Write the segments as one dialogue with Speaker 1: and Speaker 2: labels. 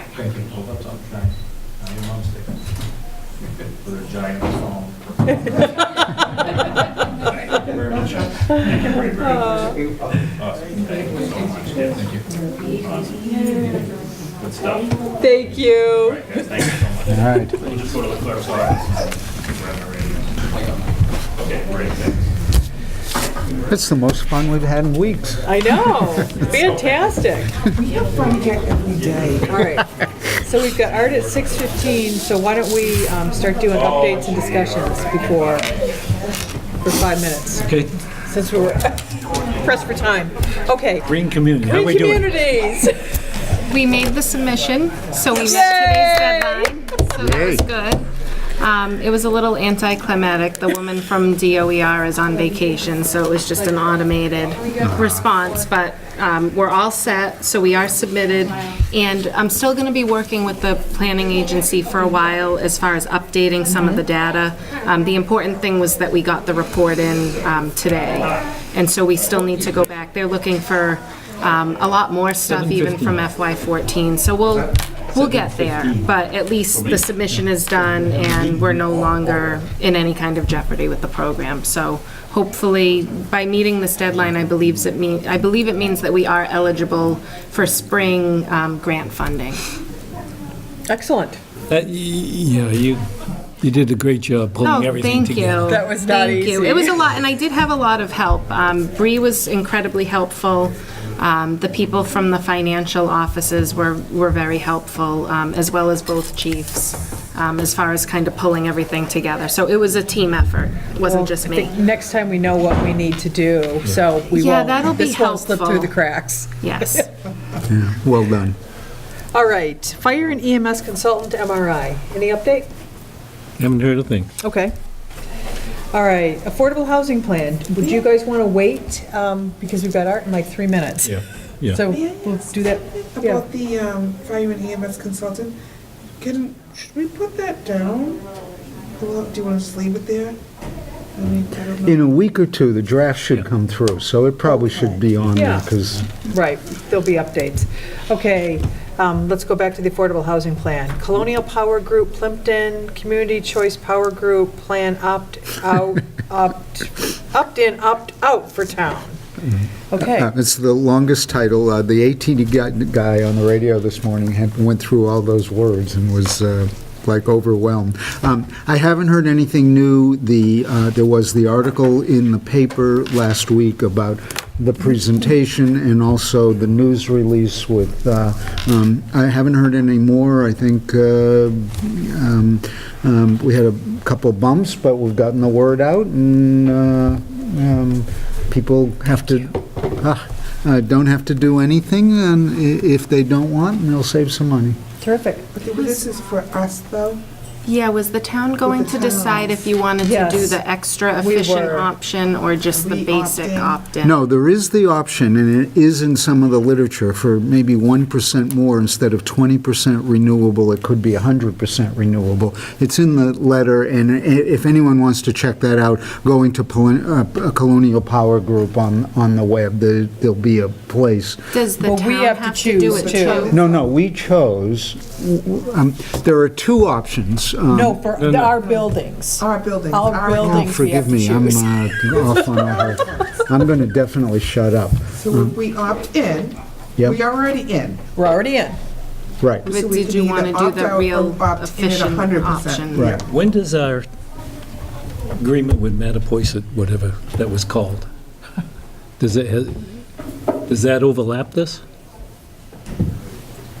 Speaker 1: thinking, oh, that's up giant. Now your mom's thinking. With her giant phone. Thank you very much. Thank you very much. Awesome. Thank you so much. Thank you. Awesome. Good stuff. All
Speaker 2: Thank you.
Speaker 1: right, guys, thank you so much.
Speaker 3: All right.
Speaker 1: We'll just go to the clerk's office. Grab our radio. Okay, great, thanks.
Speaker 3: That's the most fun we've had in weeks.
Speaker 2: I know. Fantastic.
Speaker 4: We have fun here every day.
Speaker 2: All right. So we've got art at 6:15, so why don't we um, start doing updates and discussions before, for five minutes,
Speaker 3: Okay.
Speaker 2: since we were pressed for time. Okay.
Speaker 3: Green community, how
Speaker 2: Green
Speaker 3: we doing?
Speaker 2: communities.
Speaker 5: We made the submission, so we
Speaker 2: Yay!
Speaker 5: met today's deadline, so that was good. Um, It was a little anticlimactic. The woman from DOER is on vacation, so it was just an automated response, but um, we're all set, so we are submitted. And I'm still going to be working with the planning agency for a while as far as updating some of the data. Um, The important thing was that we got the report in um, today, and so we still need to go back. They're looking for um, a lot more stuff even from FY14, so we'll, we'll get there. But at least the submission is done, and we're no longer in any kind of jeopardy with the program. So hopefully, by meeting this deadline, I believes it mean, I believe it means that we are eligible for spring um, grant funding.
Speaker 2: Excellent.
Speaker 6: That, Uh, y- yeah, you, you did a great job pulling
Speaker 5: Oh,
Speaker 6: everything
Speaker 5: thank
Speaker 6: together.
Speaker 5: you.
Speaker 2: That was not
Speaker 5: Thank you.
Speaker 2: easy.
Speaker 5: It was a lot, and I did have a lot of help. Um, Bree was incredibly helpful. Um, The people from the financial offices were, were very helpful, um, as well as both chiefs, um, as far as kind of pulling everything together. So it was a team effort. It wasn't just
Speaker 2: I
Speaker 5: me.
Speaker 2: think Next time we know what we need to do, so we won't.
Speaker 5: Yeah, that'll be
Speaker 2: This won't slip through
Speaker 5: helpful.
Speaker 2: the cracks.
Speaker 5: Yes.
Speaker 3: Well done.
Speaker 2: All right. Fire and EMS consultant MRI. Any update?
Speaker 6: Haven't heard a thing.
Speaker 2: Okay. All right, affordable housing plan. Would you guys want to wait? um, Because we've got art in like three minutes.
Speaker 6: Yeah, yeah.
Speaker 2: So
Speaker 4: May I
Speaker 2: we'll
Speaker 4: ask
Speaker 2: do that. Yeah.
Speaker 4: About the um, fire and EMS consultant, can, should we put that down? Well, Do you want to just leave it there? I mean, I don't know.
Speaker 3: In a week or two, the draft should come through, so it probably should be on there, because
Speaker 2: Right, there'll be updates. Okay, um, let's go back to the affordable housing plan. Colonial Power Group, Plimpton, Community Choice Power Group, Plan Opt Out, Opt, Opt In, Opt Out for Town.
Speaker 6: Mm-hmm. Uh,
Speaker 2: Okay,
Speaker 3: Uh, it's the longest title. Uh, The ATD guy- guy on the radio this morning had, went through all those words and was uh, like overwhelmed. Um, I haven't heard anything new. The, uh, there was the article in the paper last week about the presentation and also the news release with, uh, um, I haven't heard any more. I think uh, um, um, we had a couple bumps, but we've gotten the word out, and uh, um, people have to, ah, uh, don't have to do anything, and i- if they don't want, and they'll save some money.
Speaker 2: terrific.
Speaker 4: But this is for us, though.
Speaker 5: Yeah, was the town going to decide if you wanted to do
Speaker 2: Yes.
Speaker 5: the extra
Speaker 2: We
Speaker 5: efficient
Speaker 2: were.
Speaker 5: option or just the
Speaker 4: We
Speaker 5: basic
Speaker 4: opt-in.
Speaker 5: opt-in?
Speaker 3: No, there is the option, and it is in some of the literature, for maybe 1% more instead of 20% renewable, it could be 100% renewable. It's in the letter, and i- if anyone wants to check that out, going to uh, Colonial Power Group on, on the web, there- there'll be a place
Speaker 5: Does the
Speaker 2: Well,
Speaker 5: town
Speaker 2: we have to
Speaker 5: have to do
Speaker 2: choose
Speaker 5: it
Speaker 2: too.
Speaker 5: too?
Speaker 3: No, no, we chose, um, there are two options. um,
Speaker 2: No, for
Speaker 6: no.
Speaker 2: our buildings.
Speaker 4: Our buildings.
Speaker 2: Our
Speaker 3: oh,
Speaker 2: buildings. we have
Speaker 3: Forgive
Speaker 2: to
Speaker 3: me, I'm
Speaker 2: choose.
Speaker 3: uh, off on a whole- I'm going to definitely shut up.
Speaker 4: So if we opt in,
Speaker 3: Yep.
Speaker 4: we are already in.
Speaker 2: We're already in.
Speaker 3: Right,
Speaker 4: So
Speaker 5: But
Speaker 4: we
Speaker 5: did
Speaker 4: could
Speaker 5: you
Speaker 4: either
Speaker 5: want to do
Speaker 4: opt out
Speaker 5: the
Speaker 4: or
Speaker 5: real
Speaker 4: opt in at
Speaker 5: efficient
Speaker 4: 100%.
Speaker 5: option?
Speaker 3: right.
Speaker 6: When does our agreement with Mattapoisett, whatever that was called, does it, ha- does that overlap this?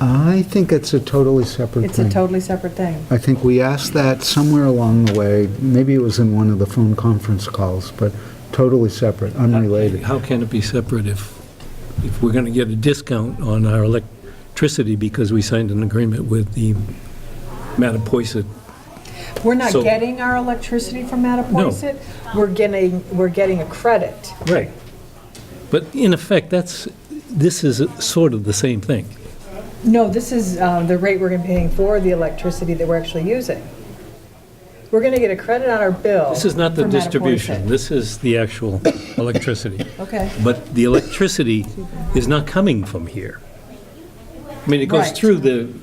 Speaker 3: I think it's a totally separate
Speaker 2: It's a
Speaker 3: thing.
Speaker 2: totally separate thing.
Speaker 3: I think we asked that somewhere along the way, maybe it was in one of the phone conference calls, but totally separate, unrelated.
Speaker 6: How can it be separate if, if we're going to get a discount on our electricity because we signed an agreement with the Mattapoisett?
Speaker 2: We're not
Speaker 6: So-
Speaker 2: getting our electricity from Mattapoisett. We're getting, we're getting a credit.
Speaker 6: Right. But in effect, that's, this is sort of the same thing.
Speaker 2: No, this is uh, the rate we're gonna be paying for the electricity that we're actually using. We're going to get a credit on our bill.
Speaker 6: This is not the
Speaker 2: for Mattapoisett.
Speaker 6: distribution, this is the actual electricity.
Speaker 2: Okay.
Speaker 6: But the electricity is not coming from here. I mean, it goes
Speaker 2: Right.
Speaker 6: through the